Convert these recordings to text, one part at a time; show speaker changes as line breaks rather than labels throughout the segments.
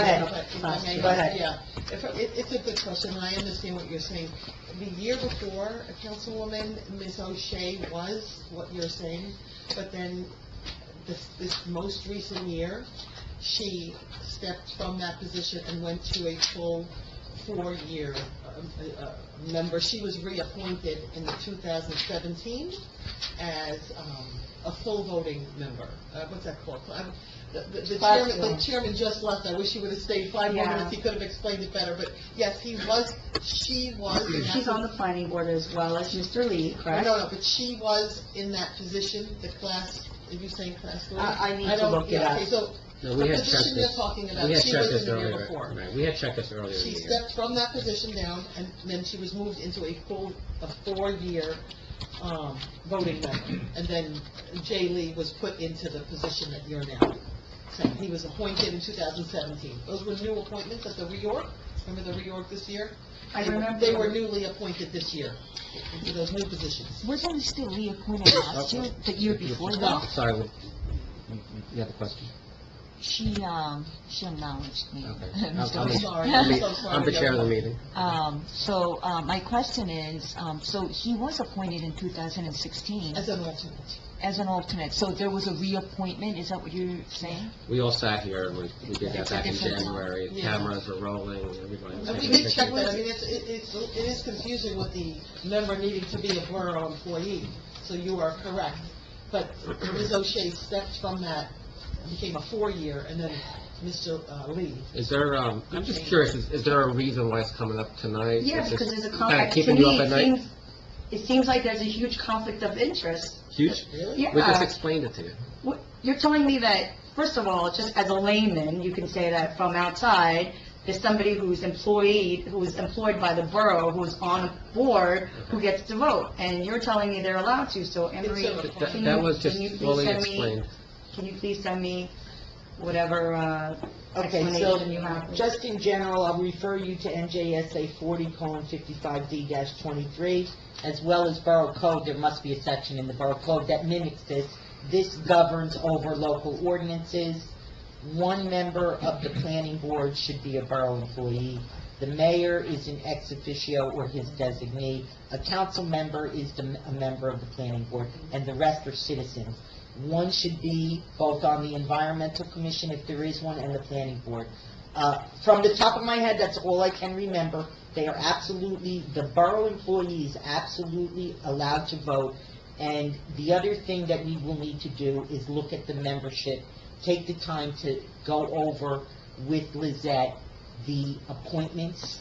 ahead,
If I may,
Marcia, go ahead.
Yeah, If- it- it's a good question, and I understand what you're saying. The year before, Councilwoman Ms. O'Shea was what you're saying, but then this, this most recent year, she stepped from that position and went to a full four-year um, uh, uh, member. She was reappointed in 2017 as um, a full voting member. Uh, What's that called? I'm- The the- the chairman, the
Platform.
chairman just left, I wish he would have stayed five more
Yeah.
minutes, he could have explained it better, but yes, he was, she was. in that
She's on the planning board as well as Mr. Lee, correct?
No, no, but she was in that position, the class, are you saying class four?
I- I need to
don't-
look it
yeah,
up.
Okay, so
No,
The
we had checked
position you're
this,
talking about,
we had
she
checked
was
this
in the year
earlier,
before.
right, we had checked this earlier in the
She
year.
stepped from that position down, and then she was moved into a full, a four-year um, voting member. And then Jay Lee was put into the position that you're now. saying. He was appointed in 2017. Those were new appointments at the reorg. Remember the reorg this year?
I
They were-
remember.
They were newly appointed this year, into those new positions.
Wasn't he still reappointed last year, the year before that?
Sorry, we- you- you have a question?
She, um, she acknowledged me.
Okay.
Mr.
I'm-
I'm
Lee.
sorry, I'm so sorry.
I'm the chair of the meeting.
Um, so, uh, my question is, um, so he was appointed in 2016
As an alternate.
as an alternate, so there was a reappointment, is that what you're saying?
We all sat here, and we, we did that
It's a
back in
different time.
January,
Yeah.
cameras were rolling, everybody was
And we
taking
did check that, I
pictures.
mean, it's, it- it's, it is confusing with the member needing to be a borough employee, so you are correct. But Ms. O'Shea stepped from that, became a four-year, and then Mr. uh, Lee.
Is there, um, I'm just curious, is, is there a reason why it's coming up tonight?
Yeah,
Is this
because there's a
kinda
conflict. To
keeping you
me,
up at
it
night?
seems, it seems like there's a huge conflict of interest.
Huge?
Really?
Yeah.
We just explained it to you.
What- You're telling me that, first of all, just as a layman, you can say that from outside, there's somebody who's employed, who's employed by the borough, who's on a board, who gets to vote, and you're telling me they're allowed to, so Emery,
It's a-
But
can
That,
you,
that was just
can you please
fully
send me,
explained.
can you please send me whatever uh,
Okay,
explanation you have?
so, just in general, I'll refer you to NJSA forty colon fifty-five D twenty-three, as well as Borough Code, there must be a section in the Borough Code that mimics this. This governs over local ordinances. One member of the planning board should be a borough employee. The mayor is an ex officio or his designee. A council member is the, a member of the planning board, and the rest are citizens. One should be both on the environmental commission, if there is one, and the planning board. Uh, From the top of my head, that's all I can remember. They are absolutely, the borough employee is absolutely allowed to vote. And the other thing that we will need to do is look at the membership, take the time to go over with Lizette the appointments,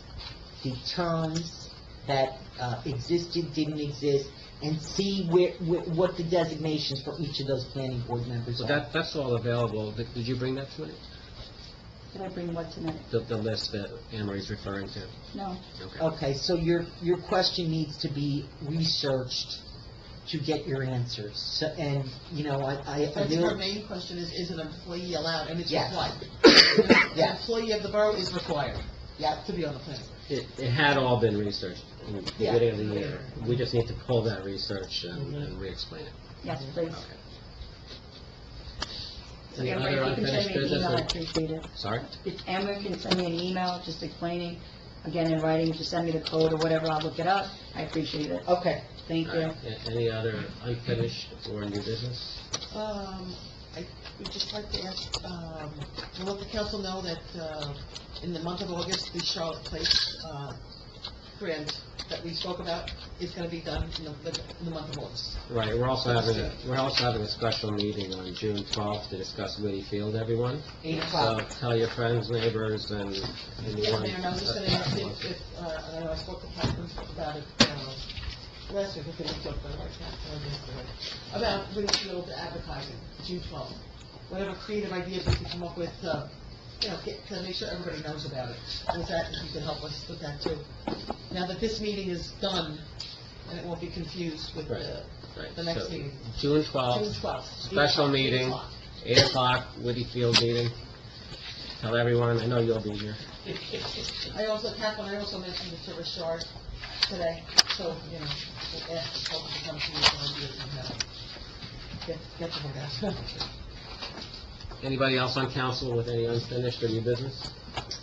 the terms that uh, existed, didn't exist, and see where, where- what the designations for each of those planning board members
So
are.
that, that's all available. Did, did you bring that tonight?
Can I bring what tonight?
The, the list that Anne Marie's referring to?
No.
Okay.
Okay, so your, your question needs to be researched to get your answers. So- And, you know, I, I- I
That's her
really,
main question is, is an employee allowed, and it's
Yes.
required. An
Yes.
employee of the borough is required
yeah,
to be on the planning.
It, it had all been researched in the
Yeah.
beginning of the year. We just need to pull that research and,
Mhm.
and re-explain it.
Yes, please.
Okay.
So
Any
Emery,
other
if you can send
unfinished
me an email, I
business?
appreciate it.
Sorry?
If Amber can send me an email just explaining, again in writing, just send me the code or whatever, I'll look it up. I appreciate it.
okay.
Thank
All
you.
right. A- Any other unfinished or new business?
Um, I would just like to ask, um, to let the council know that, uh, in the month of August, the Charlotte Place, uh, grant that we spoke about is gonna be done in the, in the month of August.
Right, we're also having, a-
Yes.
we're also having a special meeting on June 12th to discuss Woody Field, everyone.
Eight
So
o'clock.
tell your friends, neighbors, and
Yeah,
anyone.
Mayor, I was just gonna ask if, if, uh, I know I spoke to Catherine about it, uh, last week, I think we talked about it, right, Catherine, or yesterday, about Winfield advertising, June twelfth. Whatever creative ideas we can come up with, uh, you know, get, to make sure everybody knows about it. With that, if you could help us with that too. Now that this meeting is done, and it won't be confused with the
Right,
the next
so
meeting.
June
June
12th,
twelfth.
special meeting. 8 o'clock, Woody Field meeting. Tell everyone, I know you'll be here.
I also, Catherine, I also mentioned it to Richard today, so, you know, we'll ask the public to uh, come to you for ideas and help. Get, get the word out.
Anybody else on council with any unfinished or new business?